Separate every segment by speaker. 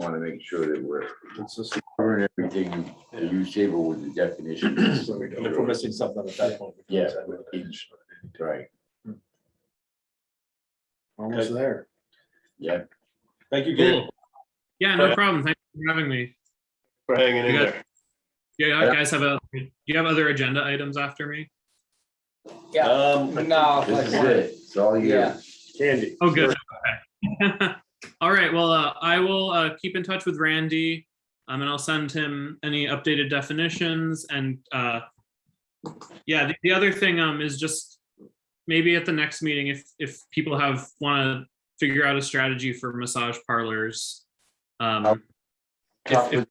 Speaker 1: want to make sure that we're covering everything and use table with the definition.
Speaker 2: So we don't- If we're missing something at that point. we can
Speaker 1: Yeah.
Speaker 2: decide whether to-
Speaker 1: Each. Right,
Speaker 2: Almost
Speaker 3: there.
Speaker 1: yeah.
Speaker 2: Thank you, Gabe.
Speaker 4: Yeah, no problem. Thanks for having me.
Speaker 3: We're hanging in
Speaker 4: You guys-
Speaker 3: there.
Speaker 4: Yeah, you guys have a, do you have other agenda items after me?
Speaker 5: Yeah,
Speaker 3: Um,
Speaker 5: no,
Speaker 1: This is
Speaker 5: like,
Speaker 1: it. It's all you.
Speaker 5: Yeah.
Speaker 3: Candy.
Speaker 4: Oh, good. Okay. All right, well, uh, I will uh, keep in touch with Randy. Um, and I'll send him any updated definitions and uh, yeah, the, the other thing um is just maybe at the next meeting, if if people have want to figure out a strategy for massage parlors. Um,
Speaker 1: Talk
Speaker 4: if, if
Speaker 1: with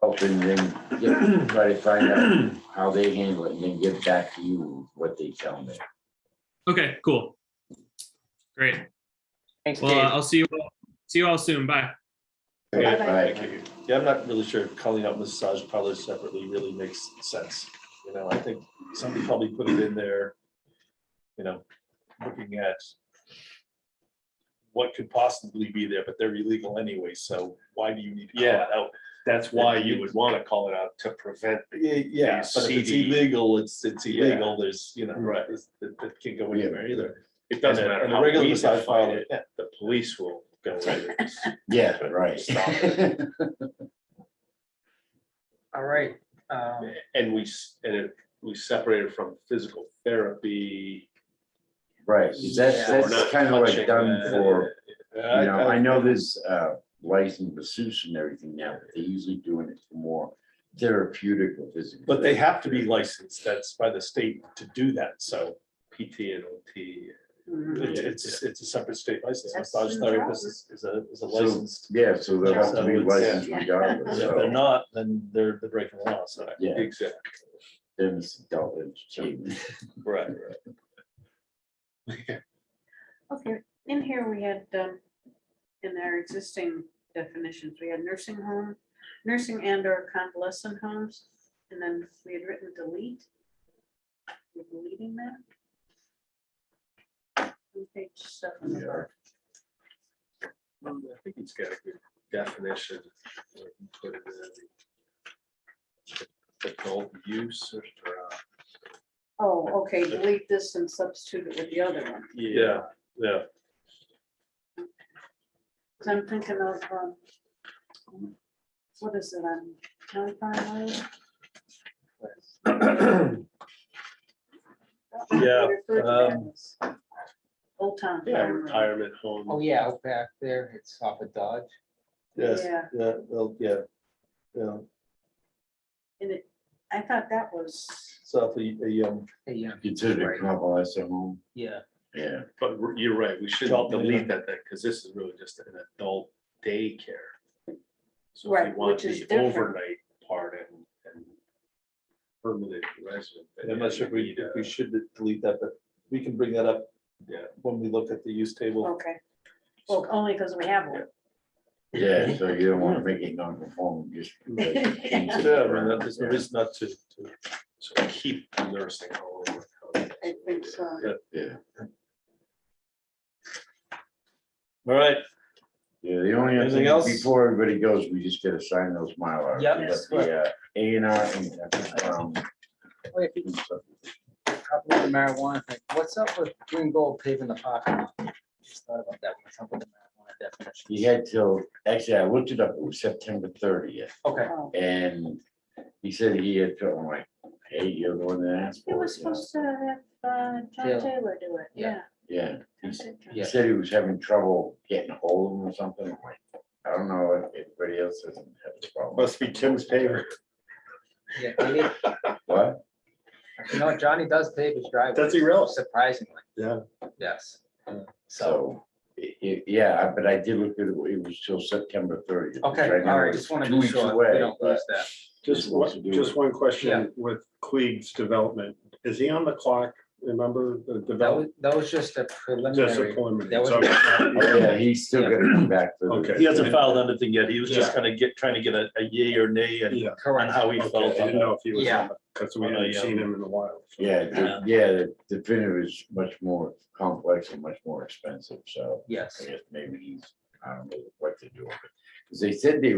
Speaker 1: help and then get- try to find out how they handle it and then get back to you what they tell me.
Speaker 4: Okay, cool. Great.
Speaker 5: thanks,
Speaker 4: Well, uh,
Speaker 5: Dave.
Speaker 4: I'll see you, all see you all soon. Bye.
Speaker 3: Okay,
Speaker 1: Bye.
Speaker 3: thank you. Yeah, I'm not really sure if calling out massage parlors separately really makes sense. You know, I think somebody probably put it in there. You know, looking at what could possibly be there, but they're illegal anyway, so why do you need to call
Speaker 6: Yeah.
Speaker 3: it out?
Speaker 6: That's why you would want to call it out to prevent.
Speaker 3: Y- Yeah,
Speaker 6: These
Speaker 3: but if it's
Speaker 6: CD.
Speaker 3: illegal, it's, it's
Speaker 6: Yeah.
Speaker 3: illegal, there's, you know,
Speaker 6: Right.
Speaker 3: it's- That that can't go
Speaker 1: Yeah.
Speaker 3: anywhere either.
Speaker 6: It doesn't
Speaker 3: And a-
Speaker 6: matter
Speaker 3: and a
Speaker 6: how
Speaker 3: regular
Speaker 6: we
Speaker 3: massage
Speaker 6: define
Speaker 3: parlor,
Speaker 6: it,
Speaker 3: yeah.
Speaker 6: the police will go over this.
Speaker 1: Yeah, right.
Speaker 6: Stop
Speaker 5: All right. um,
Speaker 6: And we, s- and it, we separated from physical therapy.
Speaker 1: Right, 'cause that's,
Speaker 5: Yeah.
Speaker 6: We're
Speaker 1: that's
Speaker 6: not
Speaker 1: kind of like
Speaker 6: touching
Speaker 1: done
Speaker 6: that.
Speaker 1: for,
Speaker 3: I-
Speaker 1: you know,
Speaker 3: I-
Speaker 1: I know there's uh, licensed masseuse and everything now, but they're usually doing it for more therapeutic or physical.
Speaker 6: But they have to be licensed, that's by the state to do that, so
Speaker 3: PT and OT.
Speaker 6: it's,
Speaker 3: Yeah.
Speaker 6: it's, it's a separate state license.
Speaker 7: That's
Speaker 6: Massage
Speaker 7: in
Speaker 6: therapist is, is a, is a
Speaker 1: So-
Speaker 6: licensed.
Speaker 1: Yeah, so they'll have to be
Speaker 3: Yeah.
Speaker 1: licensed
Speaker 3: And
Speaker 1: regardless,
Speaker 3: If they're
Speaker 1: so
Speaker 3: not, then they're, they're breaking the law, so.
Speaker 1: Yeah.
Speaker 6: Exactly.
Speaker 1: then it's adult entertainment.
Speaker 3: Right, right.
Speaker 7: Okay, in here we had, um, in our existing definitions, we had nursing home, nursing and or convalescent homes, and then we had written delete. We're deleting that. On Page seven.
Speaker 1: Yeah.
Speaker 6: I think it's got a good definition. where you put it in. Adult use or. uh,
Speaker 7: Oh, okay, delete this and substitute it with the other one.
Speaker 6: Yeah, yeah.
Speaker 7: Cause I'm thinking of, um, what is it, on county farm road?
Speaker 6: Yeah,
Speaker 7: Referred to
Speaker 6: um,
Speaker 7: as Old town.
Speaker 6: Yeah,
Speaker 7: Farm Road.
Speaker 6: retirement home.
Speaker 5: Oh, yeah, out back there, it's off of Dodge.
Speaker 3: Yes,
Speaker 7: Yeah.
Speaker 3: yeah, well, yeah. Yeah,
Speaker 7: And it, I thought that was,
Speaker 3: so if um, a, a young,
Speaker 5: Hey, Yeah,
Speaker 1: Considered a convalescent home,
Speaker 5: yeah.
Speaker 1: yeah.
Speaker 6: But we're- you're right, we shouldn't
Speaker 3: Adult,
Speaker 6: delete that thing, because this is really just an adult daycare. So if
Speaker 7: Right,
Speaker 6: you want
Speaker 7: which is
Speaker 6: the
Speaker 7: different.
Speaker 6: overnight part and, and permanent resident. then
Speaker 3: I'm not sure if
Speaker 6: you
Speaker 3: we,
Speaker 6: need,
Speaker 3: if
Speaker 6: uh,
Speaker 3: we should delete that, but we can bring that up.
Speaker 6: Yeah.
Speaker 3: When we look at the use table.
Speaker 7: okay. Well, only because we have one.
Speaker 1: Yeah, so you don't want to make it non-conforming, just. like, change
Speaker 7: Yeah,
Speaker 1: it
Speaker 6: Yeah, I mean, that-
Speaker 1: around,
Speaker 6: there's no
Speaker 1: yeah.
Speaker 6: reason not to, to, sort of keep nursing home.
Speaker 7: I think so.
Speaker 1: Yeah,
Speaker 3: All right,
Speaker 1: yeah, the only other
Speaker 3: Anything
Speaker 1: thing,
Speaker 3: else?
Speaker 1: before everybody goes, we just gotta sign those mylar.
Speaker 5: Yep.
Speaker 1: We got The uh, A and R and.
Speaker 5: Wait,
Speaker 1: um,
Speaker 5: couple of marijuana thing. What's up with green gold paving the parking lot? Just thought about that. What's up with the marijuana definition?
Speaker 1: He had till, actually, I looked it up, it was September thirtieth,
Speaker 5: Okay,
Speaker 7: Oh,
Speaker 1: and he said he had, to- I'm like, hey, you're the one that asked
Speaker 7: He
Speaker 1: for
Speaker 7: was
Speaker 1: it. you know?
Speaker 7: supposed to have uh,
Speaker 5: Taylor.
Speaker 7: John Taylor do it, yeah.
Speaker 5: Yeah.
Speaker 1: Yeah,
Speaker 7: John said John.
Speaker 1: he said he was having trouble getting hold of him or something, I'm like, I don't know if anybody else doesn't have this problem.
Speaker 6: Must be Tim's favorite.
Speaker 5: yeah. maybe-
Speaker 1: What?
Speaker 5: You know, Johnny does pave his driveway.
Speaker 6: Does he really?
Speaker 5: Surprisingly.
Speaker 3: Yeah.
Speaker 5: Yes. So,
Speaker 1: So, i- i- yeah, but I did look at it, it was till September thirtieth.
Speaker 5: okay, all right, just want to be sure we don't lose that.
Speaker 1: Just supposed to do it.
Speaker 6: just one
Speaker 5: Yeah.
Speaker 6: question with Cleve's development. Is he on the clock? Remember
Speaker 5: That
Speaker 6: the
Speaker 5: was,
Speaker 6: development?
Speaker 5: that was just a
Speaker 6: Just
Speaker 5: preliminary. that was-
Speaker 6: a
Speaker 1: Yeah, he's still gonna come back. for the-
Speaker 6: Okay.
Speaker 3: he hasn't filed anything yet, he was just kind of get, trying to get a, a yay or nay and
Speaker 6: Yeah.
Speaker 5: Correct.
Speaker 3: on how he
Speaker 6: Okay, I
Speaker 3: felt.
Speaker 6: didn't
Speaker 3: on
Speaker 6: know if he was,
Speaker 5: Yeah.
Speaker 6: because we hadn't seen him in a while.
Speaker 1: Yeah, the- yeah, the definitive is much more complex and much more expensive, so
Speaker 5: Yes.
Speaker 1: I guess maybe he's, I don't know what to do. 'Cause they said they